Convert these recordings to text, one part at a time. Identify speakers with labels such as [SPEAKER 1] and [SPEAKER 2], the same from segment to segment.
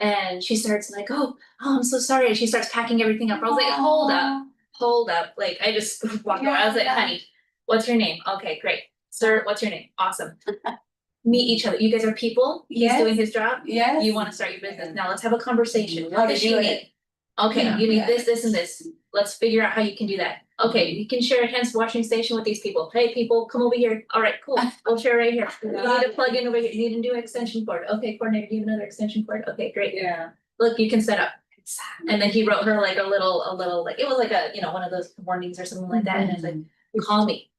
[SPEAKER 1] And she starts like, oh, oh, I'm so sorry. And she starts packing everything up. I was like, hold up, hold up. Like, I just walked over. I was like,
[SPEAKER 2] Yeah.
[SPEAKER 1] honey, what's your name? Okay, great. Sir, what's your name? Awesome. Meet each other. You guys are people. He's doing
[SPEAKER 2] Yes.
[SPEAKER 1] his job.
[SPEAKER 2] Yes.
[SPEAKER 1] You wanna start your business. Now let's have a conversation.
[SPEAKER 2] How
[SPEAKER 1] What
[SPEAKER 2] to
[SPEAKER 1] does she
[SPEAKER 2] do it.
[SPEAKER 1] need? Okay,
[SPEAKER 2] Yeah.
[SPEAKER 1] you need this, this and this. Let's figure out how you can do that. Okay, we can share a hands washing station with these people. Hey, people, come over here. All right, cool. We'll share right here. You
[SPEAKER 2] Love
[SPEAKER 1] need a
[SPEAKER 2] it.
[SPEAKER 1] plug in over here. You need a new extension cord. Okay, coordinator, do you have another extension cord? Okay, great.
[SPEAKER 2] Yeah.
[SPEAKER 1] Look, you can set up. And then he wrote her like a little, a little, like, it was like a, you know, one of those warnings or something like that. And it's like, call me.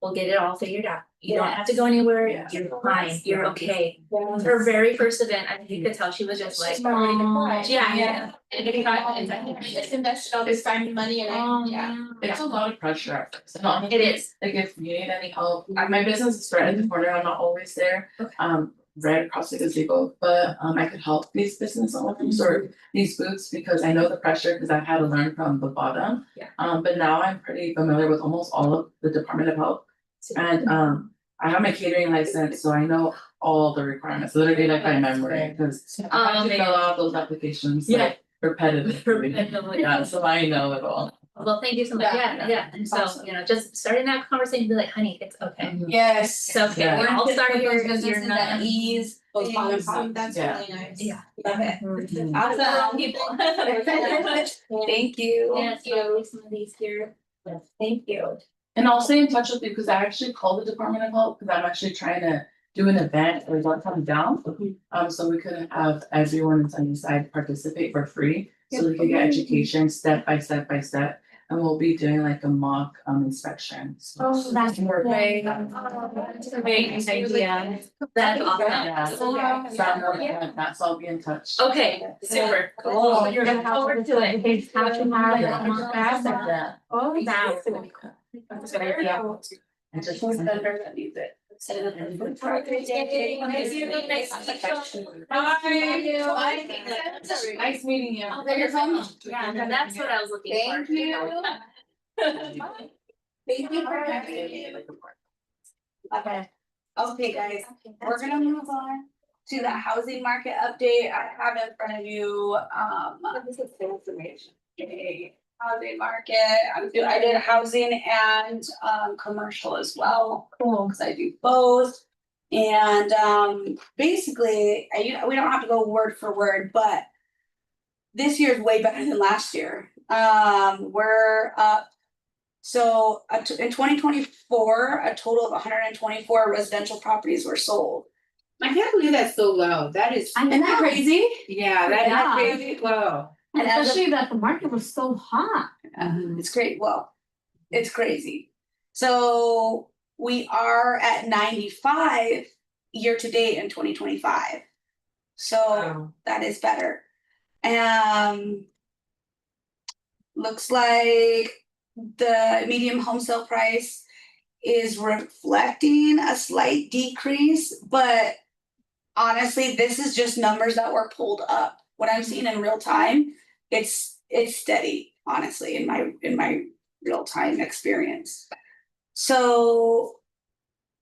[SPEAKER 1] We'll get it all figured out. You don't have to go anywhere.
[SPEAKER 2] Yeah.
[SPEAKER 1] You're fine. You're okay.
[SPEAKER 2] Yes.
[SPEAKER 1] Her very first event, I think you could tell she was just like, "Oh,
[SPEAKER 3] She's not ready to cry.
[SPEAKER 1] yeah,
[SPEAKER 2] Yeah.
[SPEAKER 1] yeah.
[SPEAKER 3] And if not, it's like,
[SPEAKER 1] "Oh,
[SPEAKER 3] I just invested all this time and money and I, yeah.
[SPEAKER 4] It's a lot of pressure at first, and honestly,
[SPEAKER 1] It is.
[SPEAKER 4] like if you need any help, I- my business is right at the corner, I'm not always there.
[SPEAKER 1] Okay.
[SPEAKER 4] Um, right across the gazebo, but um I could help these business owners or these boots because I know the pressure, because I've had to learn from the bottom.
[SPEAKER 1] Yeah.
[SPEAKER 4] Um, but now I'm pretty familiar with almost all of the Department of Health and um I have my catering license, so I know all the requirements, literally like by
[SPEAKER 2] That's
[SPEAKER 4] memory,
[SPEAKER 2] great.
[SPEAKER 4] because I have to
[SPEAKER 1] Amazing.
[SPEAKER 4] fill out those applications
[SPEAKER 1] Yeah.
[SPEAKER 4] like repetitively. Yeah,
[SPEAKER 1] Well,
[SPEAKER 4] so I know it all.
[SPEAKER 1] thank you so much.
[SPEAKER 3] Yeah.
[SPEAKER 1] Yeah, yeah. And so,
[SPEAKER 3] Awesome.
[SPEAKER 1] you know, just starting that conversation, be like, honey, it's okay.
[SPEAKER 2] Yes. Oh,
[SPEAKER 1] It's okay.
[SPEAKER 4] Yeah.
[SPEAKER 1] We're all
[SPEAKER 2] Put
[SPEAKER 1] starting
[SPEAKER 2] those
[SPEAKER 1] here. You're
[SPEAKER 2] businesses at
[SPEAKER 1] not.
[SPEAKER 2] ease, those bottom
[SPEAKER 3] Um, That's
[SPEAKER 4] Yeah.
[SPEAKER 3] really nice.
[SPEAKER 1] Yeah.
[SPEAKER 2] Love it.
[SPEAKER 4] Mhm.
[SPEAKER 2] Awesome. Thank you.
[SPEAKER 1] Yes, you know, some of these here. Thank you.
[SPEAKER 4] And I'll stay in touch with you because I actually called the Department of Health because I'm actually trying to do an event or one time down. Um, so we could have everyone in Sunnyside participate for free, so we could get education step by step by step. And we'll be doing like a mock um inspection. So-
[SPEAKER 1] that's
[SPEAKER 2] great.
[SPEAKER 3] That's
[SPEAKER 1] That's awesome.
[SPEAKER 4] Yeah.
[SPEAKER 3] So, yeah.
[SPEAKER 4] So I'm working on that, so I'll be in touch.
[SPEAKER 1] Okay, super.
[SPEAKER 2] Cool.
[SPEAKER 1] You're looking forward to it. Have to have it on my back.
[SPEAKER 4] Yeah.
[SPEAKER 3] Oh,
[SPEAKER 1] Wow.
[SPEAKER 3] That's a good idea.
[SPEAKER 4] I just-
[SPEAKER 2] that needs it. Oh,
[SPEAKER 4] Nice meeting you.
[SPEAKER 1] Oh, there's one. Yeah, that's what I was looking for.
[SPEAKER 3] Thank you.
[SPEAKER 2] Thank you for having me.
[SPEAKER 4] Thank
[SPEAKER 2] Okay. Okay, guys, we're gonna move on to the housing market update. I have in front of you, um. This is information. Housing market, I'm do, I did housing and, um, commercial as well. Cool. Cause I do both. And, um, basically, I, you, we don't have to go word for word, but. This year's way better than last year. Um, we're up so a t- in twenty twenty four, a total of hundred and twenty four residential properties were sold.
[SPEAKER 3] I can't believe that's so low. That is,
[SPEAKER 5] I
[SPEAKER 2] Isn't that
[SPEAKER 5] know,
[SPEAKER 2] crazy?
[SPEAKER 5] Yeah.
[SPEAKER 3] yeah, that is crazy low.
[SPEAKER 5] and
[SPEAKER 2] And as a- Uh-huh,
[SPEAKER 5] especially that the market was so hot.
[SPEAKER 2] It's great, well, it's crazy. So we are at ninety five year to date in twenty twenty five. So that is better. Um. Looks like the medium home sale price is reflecting a slight decrease, but. Honestly, this is just numbers that were pulled up. What I'm seeing in real time, it's, it's steady, honestly, in my, in my real time experience. So.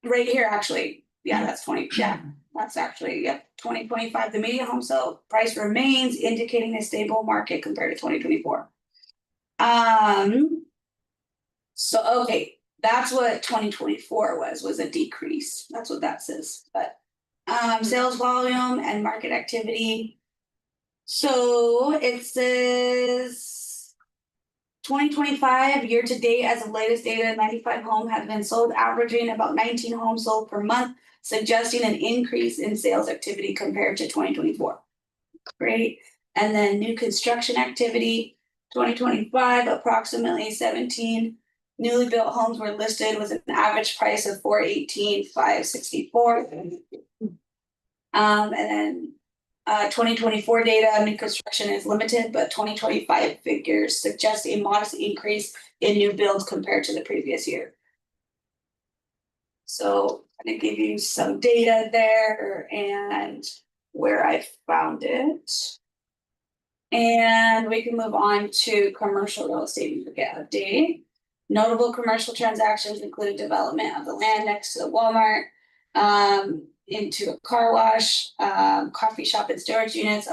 [SPEAKER 2] Right here, actually, yeah, that's twenty, yeah, that's actually, yep, twenty twenty-five, the median home sale price remains indicating a stable market compared to twenty twenty-four. Um. So, okay, that's what twenty twenty-four was, was a decrease, that's what that says, but. Um, sales volume and market activity. So it says. Twenty twenty-five, year-to-date, as of latest data, ninety-five home have been sold, averaging about nineteen homes sold per month suggesting an increase in sales activity compared to twenty twenty-four. Great, and then new construction activity, twenty twenty-five, approximately seventeen newly built homes were listed with an average price of four eighteen, five sixty-four. Um, and then, uh, twenty twenty-four data, new construction is limited, but twenty twenty-five figures suggest a modest increase in new builds compared to the previous year. So I'm gonna give you some data there and where I found it. And we can move on to commercial real estate and forget update. Notable commercial transactions include development of the land next to the Walmart, um, into a car wash, um, coffee shop and storage units,